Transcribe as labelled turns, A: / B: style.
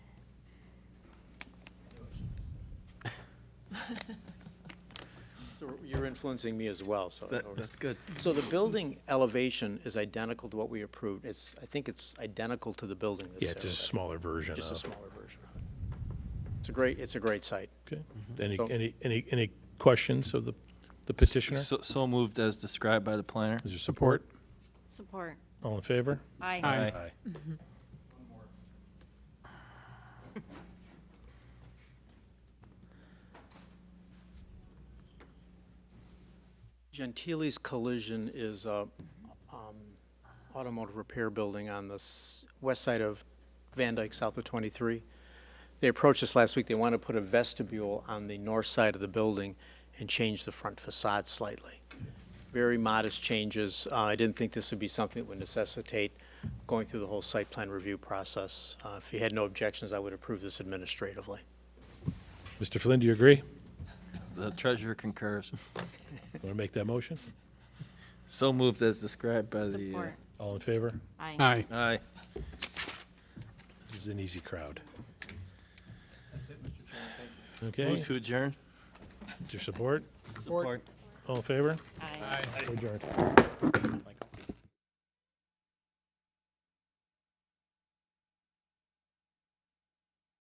A: So You're influencing me as well, so.
B: That- That's good.
A: So the building elevation is identical to what we approved. It's, I think it's identical to the building that's
C: Yeah,
A: there.
C: it's just a smaller version
A: uh, Just a
C: of.
A: smaller version of it. It's a great, it's a great site.
C: Okay. Any,
A: So-
C: any, any, any questions of the the petitioner? Is
D: So, so moved as described by the planner.
C: there support?
E: Support.
C: All in favor?
E: Aye.
C: Aye.
A: Gentili's Collision is a um, automotive repair building on the s- west side of Van Dyke, south of 23. They approached us last week, they want to put a vestibule on the north side of the building and change the front facade slightly. Very modest changes. Uh, I didn't think this would be something that would necessitate going through the whole site plan review process. Uh, If you had no objections, I would approve this administratively.
C: Mr. Flynn, do you agree?
D: The treasurer concurs.
C: Want to make that motion?
D: So moved as described by the. uh,
E: Support.
C: All in favor?
E: Aye.
F: Aye.
D: Aye.
C: This is an easy crowd.
D: Move
C: Okay,
D: to adjourn.
C: your support? All in favor?
E: Aye.
C: Adjourned.